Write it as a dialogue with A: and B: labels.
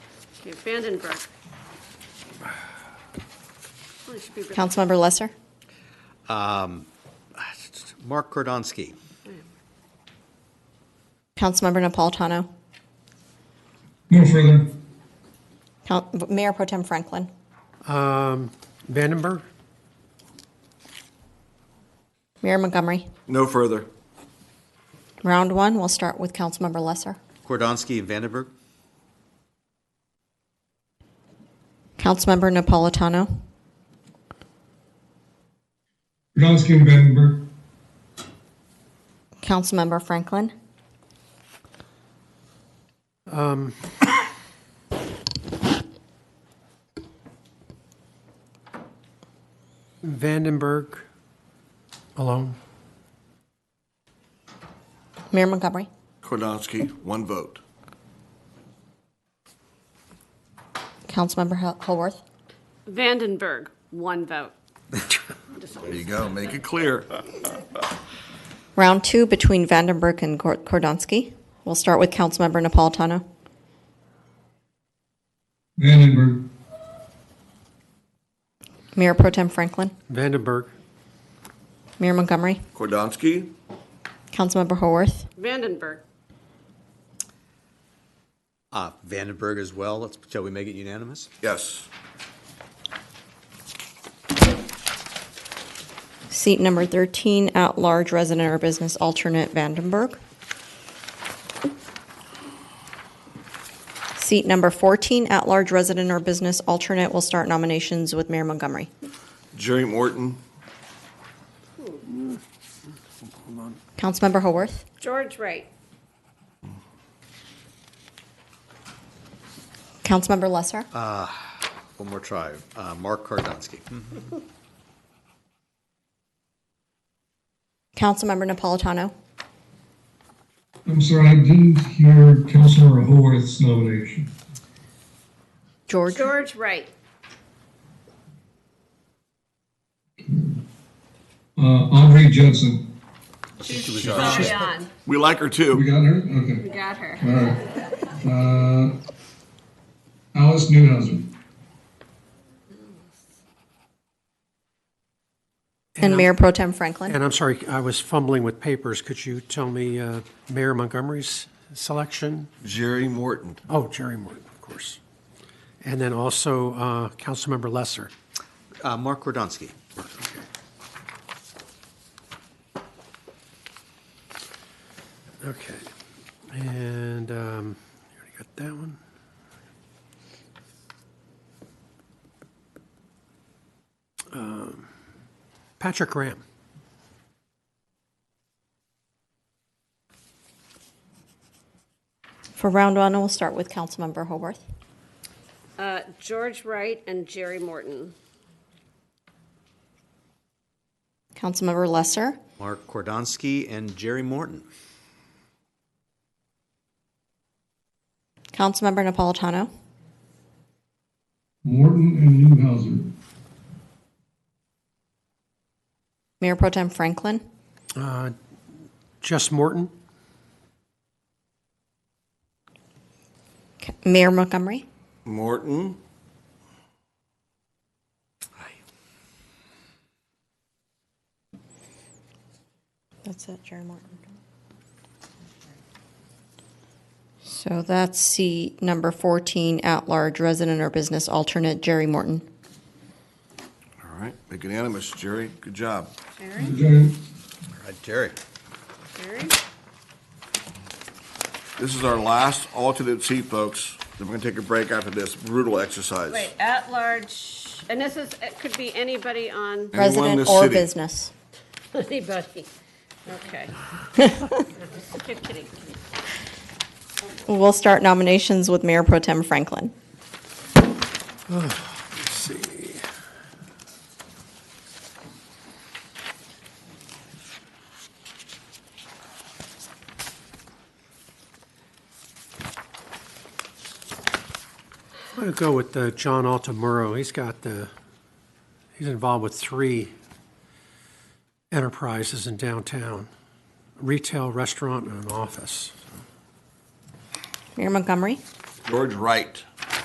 A: Okay, Vandenbroek. Well, it should be-
B: Councilmember Lesser?
C: Mark Kordonski.
B: Councilmember Napolitano?
D: No further.
B: Coun- Mayor Pro Tem Franklin?
E: Vandenberg?
B: Mayor Montgomery?
F: No further.
B: Round one, we'll start with Councilmember Lesser.
C: Kordonski and Vandenberg.
B: Councilmember Napolitano?
D: Kudowski and Vandenberg.
B: Councilmember Franklin?
E: Vandenberg alone.
B: Mayor Montgomery?
F: Kordonski, one vote.
B: Councilmember Hul- Holworth?
A: Vandenberg, one vote.
F: There you go. Make it clear.
B: Round two between Vandenberg and Kor- Kordonski. We'll start with Councilmember Napolitano.
D: Vandenberg.
B: Mayor Pro Tem Franklin?
E: Vandenberg.
B: Mayor Montgomery?
F: Kordonski,
B: Councilmember Holworth?
A: Vandenberg,
C: Ah, Vandenberg as well. Let's, shall we make it unanimous?
F: yes.
B: Seat number 13, at-large resident or business alternate Vandenberg. Seat number 14, at-large resident or business alternate, will start nominations with Mayor Montgomery.
F: Jerry Morton,
B: Councilmember Haworth,
A: George Wright,
B: Councilmember Lesser,
C: One more try. Uh, Mark Kordonski.
B: Councilmember Napolitano,
D: I'm sorry, I didn't hear Councilor Horwath's nomination.
B: George,
A: George Wright,
D: Uh, Andre Judson.
A: she's already on,
F: we like her
D: We
F: too.
D: got her? Okay.
A: we got her.
D: All right. Uh, Alice Newhouser.
B: and
E: I'm-
B: Mayor Pro Tem Franklin.
E: And I'm sorry, I was fumbling with papers. Could you tell me uh, Mayor Montgomery's selection?
F: Jerry Morton,
E: Oh, Jerry Morton, of course. And then also uh, Councilmember Lesser.
C: Uh, Mark Kordonski.
E: Okay. And um, you already got that one. Um, Patrick Graham.
B: For round one, we'll start with Councilmember Haworth,
A: Uh, George Wright and Jerry Morton.
B: Councilmember Lesser,
C: Mark Kordonski and Jerry Morton.
B: Councilmember Napolitano,
D: Morton and Newhouser.
B: Mayor Pro Tem Franklin,
E: Uh, Jess Morton.
B: Ca- Mayor Montgomery,
F: Morton,
B: That's it, Jerry Martin. So that's seat number 14, at-large resident or business alternate, Jerry Morton.
F: all right. Make it unanimous, Jerry. Good job.
A: Jerry,
D: Jerry.
C: All right, Jerry.
A: Jerry,
F: This is our last alternate seat, folks. Then we're gonna take a break after this brutal exercise.
A: wait, at large, and this is, it could be anybody on,
F: Anyone in
B: Resident
F: this
B: or
F: city.
B: business.
A: anybody, okay. Just kidding.
B: We'll start nominations with Mayor Pro Tem Franklin.
E: Let's see. I'm going to go with uh, John Altamuro. He's got the, he's involved with three enterprises in downtown, retail, restaurant, and an office.
B: Mayor Montgomery,
F: George Wright,